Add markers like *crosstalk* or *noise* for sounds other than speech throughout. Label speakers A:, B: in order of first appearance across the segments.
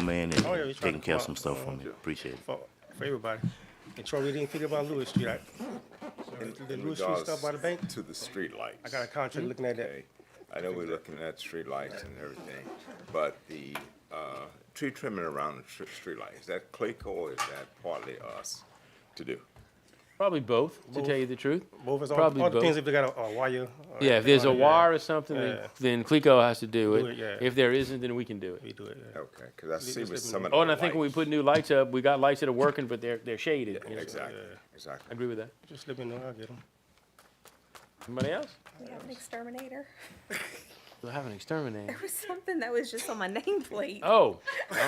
A: man and
B: Oh, yeah, he's trying
A: taking
B: to
A: care of
B: come
A: some
B: out.
A: stuff for
B: Oh,
A: me.
B: yeah.
A: Appreciate it.
B: for, for everybody. And Troy, we didn't figure about Lewis Street. I, the
C: in
B: Lewis Street
C: regards
B: stuff by the bank,
C: To the streetlights.
B: I got a contract looking at that.
C: Okay, I know we're looking at streetlights and everything, but the, uh, tree trimming around the tr- streetlight, is that Clayco or is that partly us to do?
D: Probably both, to tell you the truth.
B: Both is all,
D: Probably
B: all the
D: both.
B: things if they got a, a wire. or
D: Yeah, if there's a
B: anything,
D: wire or something,
B: Yeah.
D: then, then CLECO has to do
B: Do it, yeah.
D: it. If there isn't, then we can do
B: We
D: it.
B: do it, yeah.
C: Okay, cause I see with some of the
D: Oh, and I think when we
C: lights-
D: put new lights up, we got lights that are working, but they're, they're shaded. you know, so-
C: Exactly,
B: Yeah.
D: I
C: exactly.
D: agree with that.
B: Just let me know, I'll get them.
D: Somebody else?
E: You got an exterminator? *laughs*
D: We'll have an exterminator.
E: There was something that was just on my *laughs* nameplate.
D: Oh,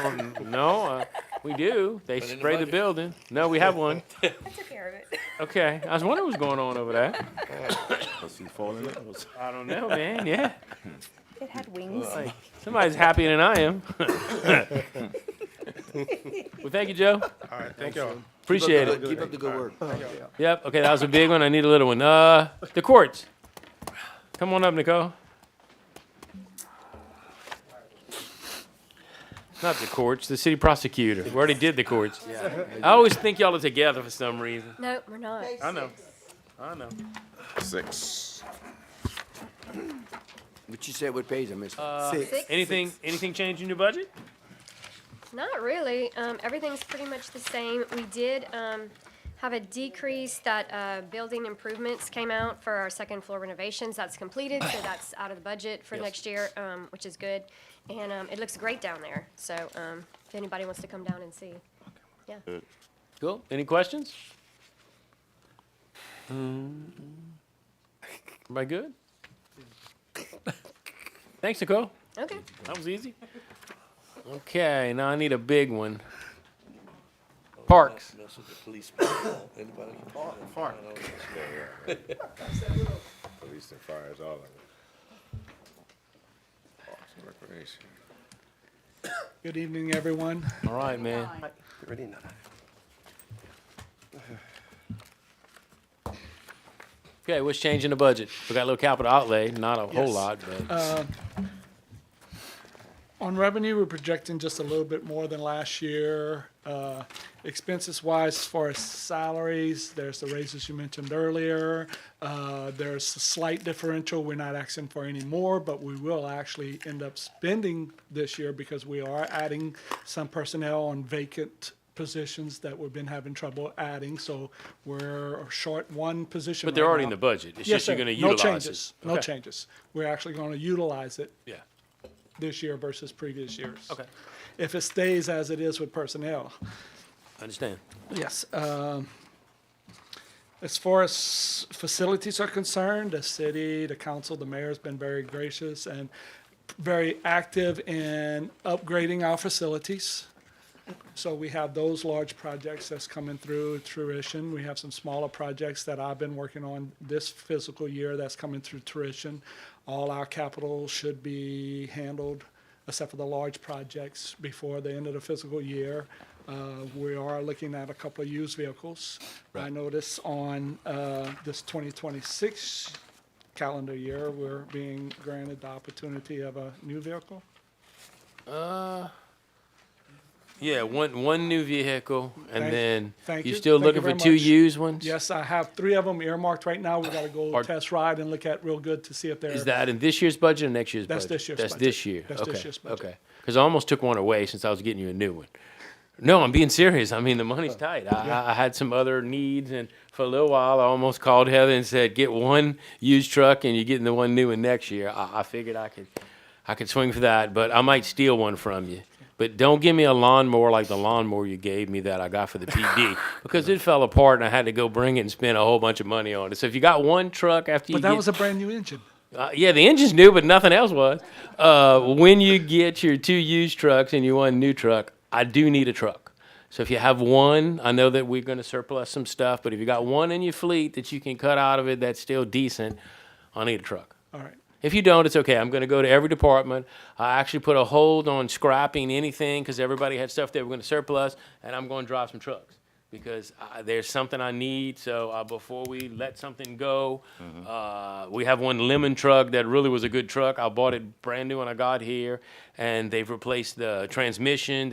D: um, no, uh, we do. They
A: in the
D: spray the
A: bucket.
D: building. No, we have one.
E: I took care of it.
D: Okay, I was wondering what's going on over there.
A: Was he falling in? Was-
D: I don't know, man, yeah.
E: It had wings.
D: Like, somebody's happier than I am. *laughs* Well, thank you, Joe.
B: All right, thank y'all.
D: Appreciate it.
F: Keep up the good work.
D: Yep. Okay, that was a big one. I need a little one. Uh, the courts. Come on up, Nicole. Not the courts, the city prosecutor. We already did the courts. I always think y'all are together for some reason.
E: Nope, we're not.
D: I know. I know.
C: Six.
F: But you said what page I missed?
D: Anything? Anything change in your budget?
G: Not really. Um, everything's pretty much the same. We did, um, have a decrease that, uh, building improvements came out for our second floor renovations. That's completed, so that's out of the budget for next year, um, which is good. And, um, it looks great down there, so, um, if anybody wants to come down and see.
D: Cool. Any questions? Am I good? Thanks, Nicole.
G: Okay.
D: That was easy. Okay, now I need a big one. Parks.
A: Mess with the police. *coughs* Anybody?
B: Park.
C: Police and fires, all of it. Parks and Recreation.
H: Good evening, everyone.
D: All right, man.
B: Ready now.
D: Okay, what's changing the budget? We got a little capital outlay, not a whole
H: Yes. Uh,
D: lot, but
H: On revenue, we're projecting just a little bit more than last year. Uh, Expenses wise, as far as salaries, there's the raises you mentioned earlier. Uh, There's a slight differential. We're not asking for any more, but we will actually end up spending this year because we are adding some personnel on vacant positions that we've been having trouble adding. So we're short one position.
D: but they're
H: right
D: already in
H: now.
D: the budget. It's
H: Yes,
D: just you're
H: sir.
D: going to
H: No
D: utilize
H: changes.
D: it.
H: No
D: Okay.
H: changes. We're actually going to utilize it
D: Yeah.
H: this year versus previous years.
D: Okay.
H: If it stays as it is with personnel.
D: I understand.
H: Yes. um, As far as facilities are concerned, the city, the council, the mayor's been very gracious and very active in upgrading our facilities. So we have those large projects that's coming through tuition. We have some smaller projects that I've been working on this fiscal year that's coming through tuition. All our capital should be handled, except for the large projects, before the end of the fiscal year. Uh, We are looking at a couple of used vehicles. I notice on uh, this 2026 calendar year, we're being granted the opportunity of a new vehicle.
D: Yeah, one one new vehicle, and
H: Thank-
D: then
H: thank
D: you're
H: you.
D: still
H: Thank you
D: looking
H: very
D: for two
H: much.
D: used ones.
H: Yes, I have three of them earmarked right now. We gotta go
D: Are-
H: test ride and look at real good to see if they're.
D: Is that in this year's budget or next year's
H: That's
D: budget?
H: this year's
D: That's
H: budget.
D: this year.
H: That's
D: okay.
H: this year's budget.
D: Okay. Because I almost took one away since I was getting you a new one. No, I'm being serious. I mean, the money's
H: Oh.
D: tight. I, I I had some other needs, and for a little while, I almost called Heather and said, "Get one used truck, and you're getting the one new one next year." I, I figured I could, I could swing for that, but I might steal one from you. But don't give me a lawnmower like the lawnmower you gave me that I got
H: *laughs*
D: for the PD because it fell apart, and I had to go bring it and spend a whole bunch of money on it. So if you got one truck after you
H: But that
D: get-
H: was a brand new engine.
D: uh, yeah, the engine's new, but nothing else was. Uh, when you get your two used trucks and you want a new truck, I do need a truck. So if you have one, I know that we're going to surplus some stuff, but if you got one in your fleet that you can cut out of it that's still decent, I need a truck.
H: All right.
D: If you don't, it's okay. I'm going to go to every department. I actually put a hold on scrapping anything because everybody had stuff they were going to surplus, and I'm going to drive some trucks because I, there's something I need. So uh, before we let something go, uh, we have one lemon truck that really was a good truck. I bought it brand new when I got here, and they've replaced the transmission.